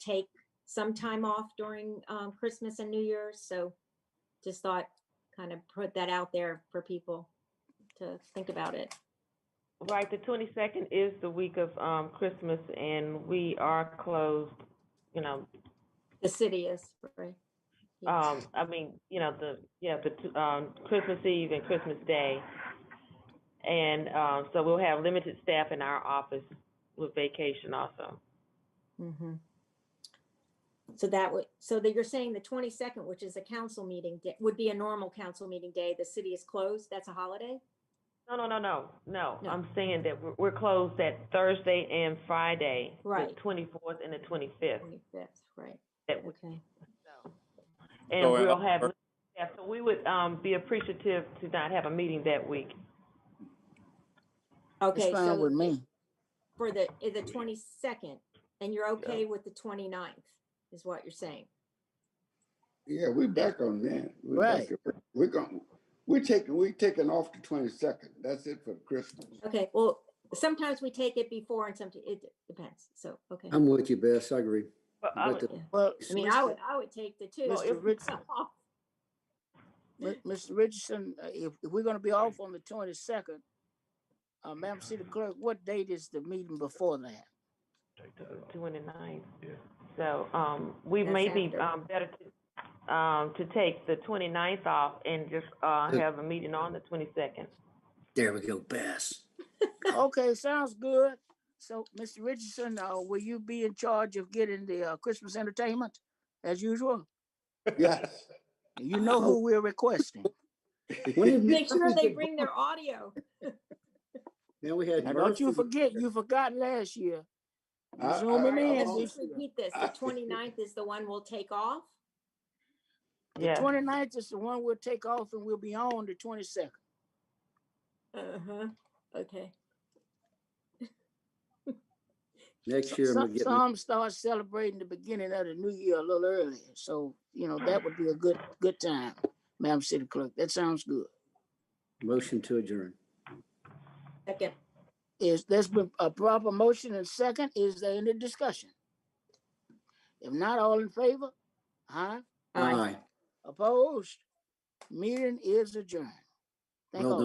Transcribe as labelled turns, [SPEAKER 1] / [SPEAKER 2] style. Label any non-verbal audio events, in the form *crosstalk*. [SPEAKER 1] take some time off during um, Christmas and New Year's. So just thought, kind of put that out there for people to think about it.
[SPEAKER 2] Right, the twenty-second is the week of, um, Christmas and we are closed, you know,
[SPEAKER 1] The city is free. Yes.
[SPEAKER 2] um, I mean, you know, the, yeah, the, t- um, Christmas Eve and Christmas Day. And, um, so we'll have limited staff in our office with vacation also.
[SPEAKER 1] Mhm. So that would, so that you're saying the 22nd, which is a council meeting, da- would be a normal council meeting day. The city is closed. That's a holiday?
[SPEAKER 2] No, no, no, no, no.
[SPEAKER 1] No.
[SPEAKER 2] I'm saying that we're, we're closed that Thursday and Friday.
[SPEAKER 1] Right.
[SPEAKER 2] The twenty-fourth and the twenty-fifth.
[SPEAKER 1] 25th, right,
[SPEAKER 2] That we-
[SPEAKER 1] okay.
[SPEAKER 2] And
[SPEAKER 3] So, uh,
[SPEAKER 2] we'll have, limited staff. so we would, um, be appreciative to not have a meeting that week.
[SPEAKER 1] Okay,
[SPEAKER 4] It's fine with
[SPEAKER 1] so
[SPEAKER 4] me.
[SPEAKER 1] for the, i- the 22nd, and you're okay with the 29th, is what you're saying?
[SPEAKER 5] Yeah, we're back on that. We're back
[SPEAKER 4] Right.
[SPEAKER 5] on- We're going, we're taking, we're taking off the twenty-second. That's it for Christmas.
[SPEAKER 1] Okay, well, sometimes we take it before and sometimes, it depends, so, okay.
[SPEAKER 6] I'm with you, Bess. I agree.
[SPEAKER 2] But I
[SPEAKER 6] But
[SPEAKER 2] would-
[SPEAKER 6] the-
[SPEAKER 4] Well,
[SPEAKER 1] I mean, I would, I would take the two.
[SPEAKER 4] Mr.
[SPEAKER 1] if *laughs* it's off.
[SPEAKER 4] Mi- Mr. Richardson, uh, if, if we're gonna be off on the twenty-second, uh, Madam City Clerk, what date is the meeting before that?
[SPEAKER 2] Twenty-ninth. So, um, we
[SPEAKER 1] That's
[SPEAKER 2] may be,
[SPEAKER 1] after.
[SPEAKER 2] um, better to, um, to take the twenty-ninth off and just, uh,
[SPEAKER 6] Good.
[SPEAKER 2] have a meeting on the twenty-second.
[SPEAKER 6] There we go, Bess.
[SPEAKER 4] Okay, sounds good. So, Mr. Richardson, uh, will you be in charge of getting the, uh, Christmas entertainment as usual?
[SPEAKER 5] Yes.
[SPEAKER 4] You know who we're requesting.
[SPEAKER 6] When
[SPEAKER 5] *laughs*
[SPEAKER 6] did
[SPEAKER 1] Make sure they
[SPEAKER 6] Mercy-
[SPEAKER 1] bring their audio.
[SPEAKER 6] Now we had
[SPEAKER 4] Now, don't you
[SPEAKER 6] Mercy.
[SPEAKER 4] forget, you forgot last year.
[SPEAKER 5] I-
[SPEAKER 4] Zoom 'em
[SPEAKER 5] I-
[SPEAKER 4] in.
[SPEAKER 5] I'm
[SPEAKER 1] Let's
[SPEAKER 5] on-
[SPEAKER 1] just repeat this, the 29th is the one we'll take off?
[SPEAKER 4] The
[SPEAKER 2] Yeah.
[SPEAKER 4] 29th is the one we'll take off and we'll be on the twenty-second.
[SPEAKER 1] Uh-huh, okay.
[SPEAKER 6] Next year, I'm gonna
[SPEAKER 4] Some,
[SPEAKER 6] get,
[SPEAKER 4] some start celebrating the beginning of the new year a little earlier, so, you know, that would be a good, good time, Madam City Clerk, that sounds good.
[SPEAKER 6] a motion to adjourn.
[SPEAKER 1] Second,
[SPEAKER 4] Is, there's been a proper motion and second, is there any discussion? If not, all in favor? Huh?
[SPEAKER 1] Aye.
[SPEAKER 6] Aye.
[SPEAKER 4] Opposed? Meeting is adjourned. Thank
[SPEAKER 6] Well
[SPEAKER 4] all.